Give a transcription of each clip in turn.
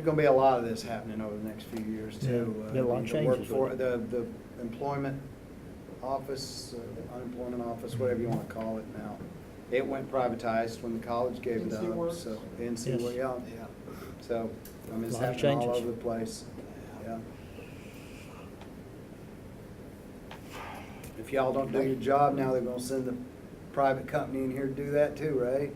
There's gonna be a lot of this happening over the next few years too. Yeah, a lot of Uh, the workfor- changes with it. The, the employment office, uh, the unemployment office, whatever you wanna call it now. It went privatized when the college gave it NC up, Works. so, NC, Yes. Wo- yeah, yeah. So, I mean, it's Lot of happening all changes. over the place, yeah. If y'all don't do your job now, they're gonna send the private company in here to do that too, right?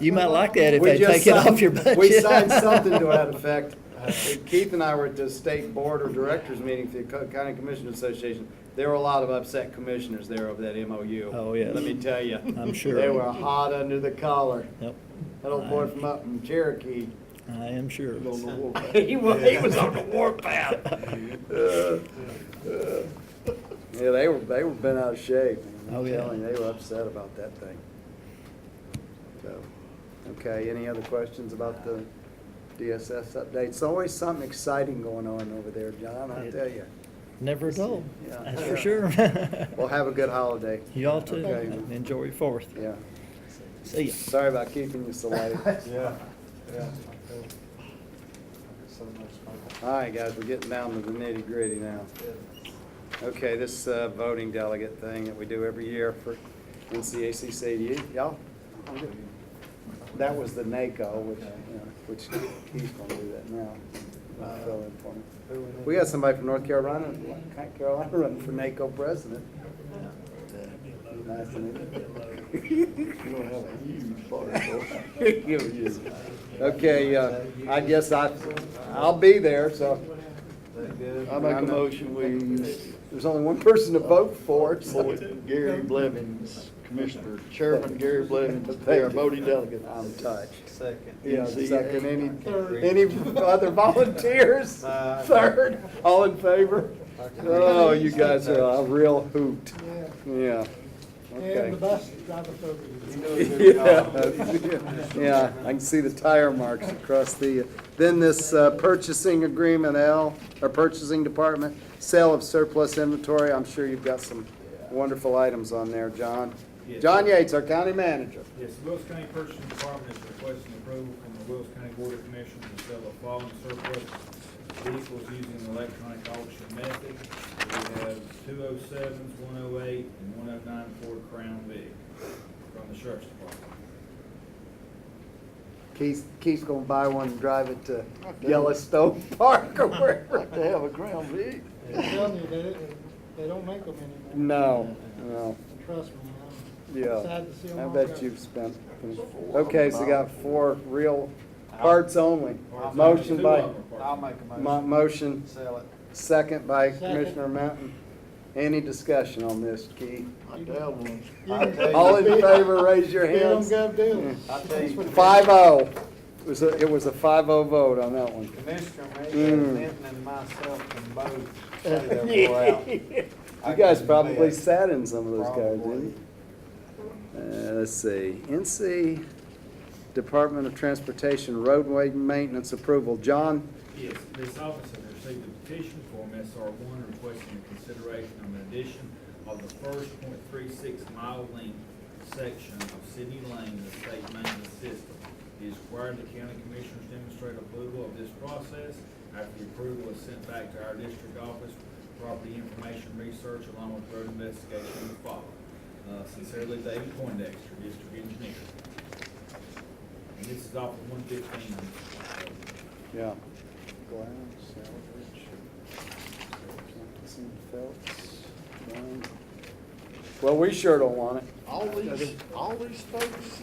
You might like that if We they just take it signed- off your budget. We signed something to that effect. Uh, Keith and I were at the state board of directors meeting for the Co- County Commissioners Association. There were a lot of upset commissioners there over that MOU. Oh, yes. Let me tell you. I'm sure. They were hot under the collar. Yep, That old boy from up in Cherokee. I am sure. He was, he was on the warpath. Yeah, they were, they were bent out of shape. man. Oh, I'm yeah. telling you, they were upset about that thing. So, okay, any other questions about the DSS updates? It's always something exciting going on over there, John, I It- tell you. Never dull, Yeah. that's for sure. Well, have a good holiday. You all too. Okay. and Enjoy your fourth. Yeah. See ya. Sorry about keeping you so late. Yeah, yeah. All right, guys, we're getting down to the nitty gritty now. Okay, this uh, voting delegate thing that we do every year for NCACC, y- y'all? That was the NACO, which, you know, which he's gonna do that now. I'll fill in for him. We got somebody from North Carolina, Carolina running for NACO president. Nice, isn't it? Okay, uh, I guess I, I'll be there, so. I I make a know. motion, we, There's only one person to vote for, it, so. appoint Gary Blevins, Commissioner, Chairman Gary Blevins, they are voting delegate. I'm touched. Second. Yeah, NCAA. second, uh, any, any other volunteers? Uh, Third, all in favor? Oh, you guys are a real hoot, Yeah, yeah. and the Okay. bus driver program. Yeah, yeah, I can see the tire marks across the, then this uh, purchasing agreement, L, or purchasing department, sale of surplus inventory, I'm sure you've got some wonderful items on there, John. Yes. John Yates, our county manager. Yes, the Wilkes County Purchasing Department is requesting approval from the Wilkes County Board of Commissioners to sell the following surplus vehicles using the electronic auction method. We have two oh sevens, one oh eight, and one oh nine Ford Crown Vic from the Sheriff's Department. Keith, Keith's gonna buy one and drive it to Yellowstone Park or wherever. Like to have a Crown Vic. I'm telling you, they, they don't make them anymore. No, no, And Trust me, I'm yeah, sad to see them I all bet go. you've spent, okay, so got four real parts only. Motion Two by, Uh, of them are I'll parts. make a mo- motion. motion Sell it. Second by Second. Commissioner Mountain. Any discussion on this, Keith? I doubt one. You can- All in favor, raise your you don't hands. go do it. I tell you. Five oh. It was a, it was a five oh vote on that one. Commissioner Mayhew, Mm. Denton and myself can both say their way out. You guys probably sat in some of those guys, Probably. didn't you? Uh, let's see, NC Department of Transportation Roadway Maintenance Approval. John, Yes, this office has received a petition from SR one requesting the consideration of an addition of the first point three six mile length section of Sydney Lane in the state maintenance system. It is required the county commissioners demonstrate approval of this process. After the approval is sent back to our district office, property information research along with road investigation will follow. Uh, Sincerely, David Poindexter, District Engineer. And this is off of one fifteen. Yeah. Well, we sure don't want it. All these, all these folks,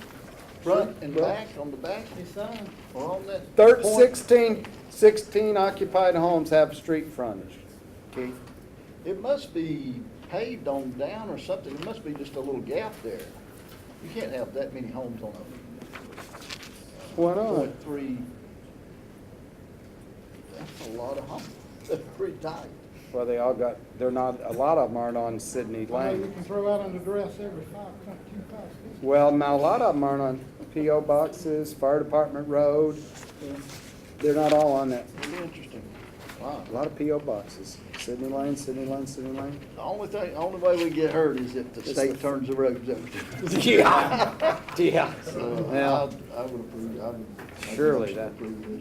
front and back, on the back, They signed. are on that. Third, point. sixteen, sixteen occupied homes have street frontage. Keith? It must be paved on down or something, it must be just a little gap there. You can't have that many homes on Why a not? point three. That's a lot of homes, that's pretty tight. Well, they all got, they're not, a lot of them aren't on Sydney I know you Lane. can throw out under duress every five, two, five, six. Well, now, a lot of them aren't on PO boxes, fire department road. They're not all on that. Pretty interesting. Wow. A lot of PO boxes. Sydney Lane, Sydney Lane, Sydney Lane. The only thing, only way we get hurt is if the It's state the- turns the roads over. Yeah, yeah. So I, I would approve, I would. I'd Surely approve that- this.